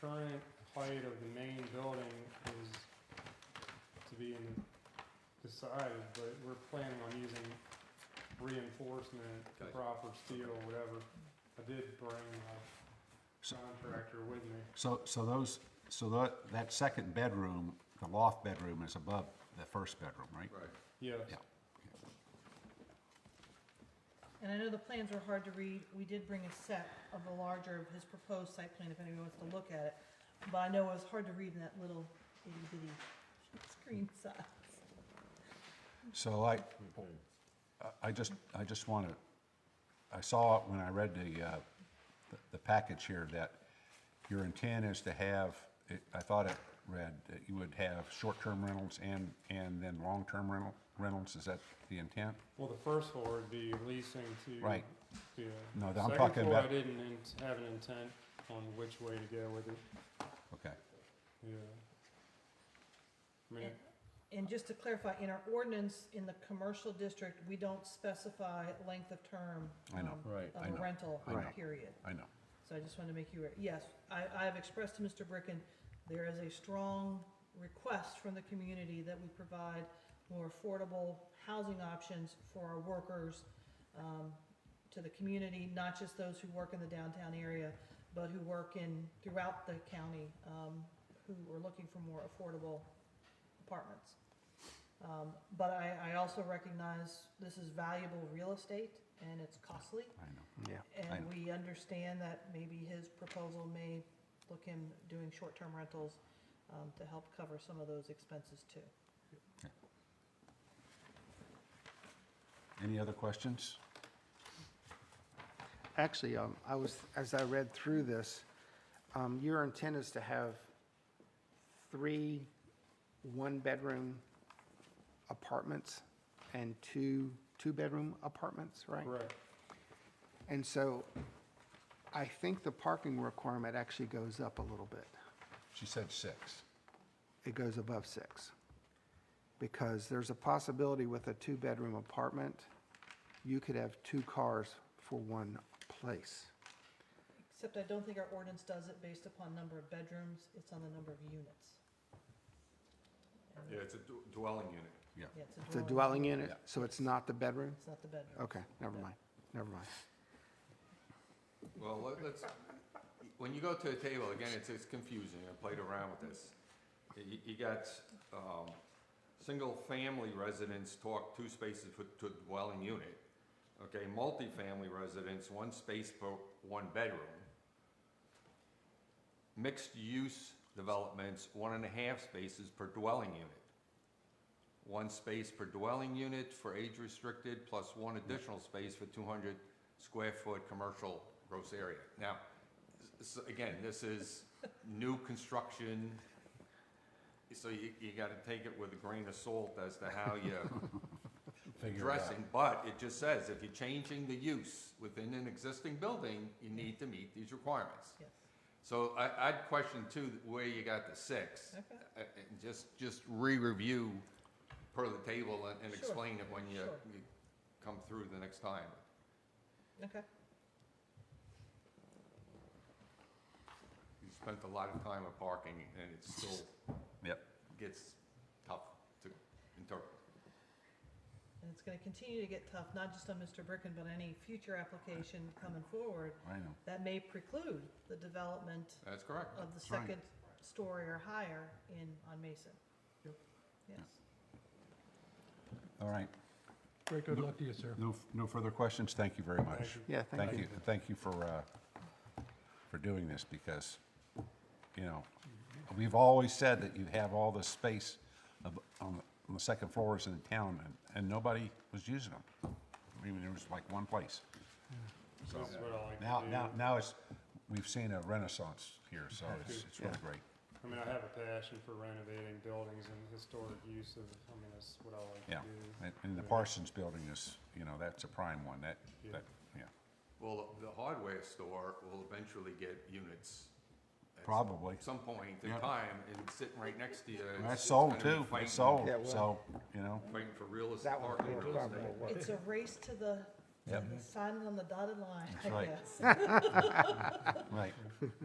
current height of the main building is to be in, decided, but we're planning on using reinforcement, the Okay. proper steel, whatever. I did bring my So- contractor with me. So, so those, so that, that second bedroom, the loft bedroom is above the first bedroom, right? Right. Yes, Yeah. And I know the plans were hard to read, we did bring a set of the larger of his proposed site plan, if anyone wants to look at it. But I know it was hard to read in that little itty bitty screen size. So I, I- I just, I just want to, I saw it when I read the, uh, the- the package here that your intent is to have, it- I thought it read that you would have short-term rentals and, and then long-term rental, rentals, is that the intent? well, the first floor would be leasing to. Right. Yeah. No, I'm talking Second floor, I about- didn't in- have an intent on which way to go with it, Okay, yeah. I mean, And just to clarify, in our ordinance, in the commercial district, we don't specify length of term. I know. um, Right. I Of know. a rental, I know. period. I know. So I just wanted to make you aware, yes, I, I have expressed to Mr. Bricken, there is a strong request from the community that we provide more affordable housing options for our workers, um, to the community, not just those who work in the downtown area, but who work in, throughout the county, um, who are looking for more affordable apartments. Um, but I, I also recognize this is valuable real estate and it's costly. I know. I And know. we understand that maybe his proposal may look him doing short-term rentals um, to help cover some of those expenses too. Any other questions? Actually, um, I was, as I read through this, um, your intent is to have three one-bedroom apartments and two two-bedroom apartments, right? correct, And so I think the parking requirement actually goes up a little bit. She said six. It goes above six. Because there's a possibility with a two-bedroom apartment, you could have two cars for one place. Except I don't think our ordinance does it based upon number of bedrooms, it's on the number of units. Yeah, it's a d- dwelling unit. Yeah, it's a dwelling. It's a dwelling unit, Yeah. so it's not the bedroom? It's not the bedroom. Okay, never mind, never mind. Well, let- let's, when you go to the table, again, it's, it's confusing, I played around with this. You, you got, um, single-family residents talk two spaces for, to dwelling unit. Okay, multifamily residents, one space per one bedroom. Mixed-use developments, one and a half spaces per dwelling unit. One space per dwelling unit for age-restricted, plus one additional space for two hundred square foot commercial gross area. Now, s- s- again, this is new construction, so you, you gotta take it with a grain of salt as to how you Figure it out. addressing, but it just says, if you're changing the use within an existing building, you need to meet these requirements. Yes. So I, I'd question too, where you got the six. Okay. Uh, uh, And just, just re-review per the table and, and Sure, explain it when you, sure. you come through the next time. Okay, You spent a lot of time on parking and it still Yep. gets tough to interpret. and it's gonna continue to get tough, not just on Mr. Bricken, but any future application coming forward I know. that may preclude the development That's correct. of the That's right. second story or higher in, on Mason. Yes. All right. Great, good luck to you, sir. No, no further questions. Thank you very much. thank you. Yeah, Thank you, thank you for, uh, for doing this because, you know, we've always said that you have all this space of- on the- on the second floors in town and, and nobody was using them. I mean, there was like one place. This is what I like to do. Now, now, now it's, we've seen a renaissance here, so it's, it's really Yeah. great. I mean, I have a passion for renovating buildings and historic use of, I mean, that's what I like Yeah. to do. And- And the Parsons Building is, you know, that's a prime one. That, Yeah. that, yeah, Well, the hardware store will eventually get units. at probably. some point in Yeah. time and sitting right next to you. it's- That's it's sold gonna be too. fighting- It's sold, Yeah, well- so, you know, Fighting for real estate, That one parking will real probably estate. work. It's a race to the, to Yep. the sign on the dotted line, That's I right. guess. right.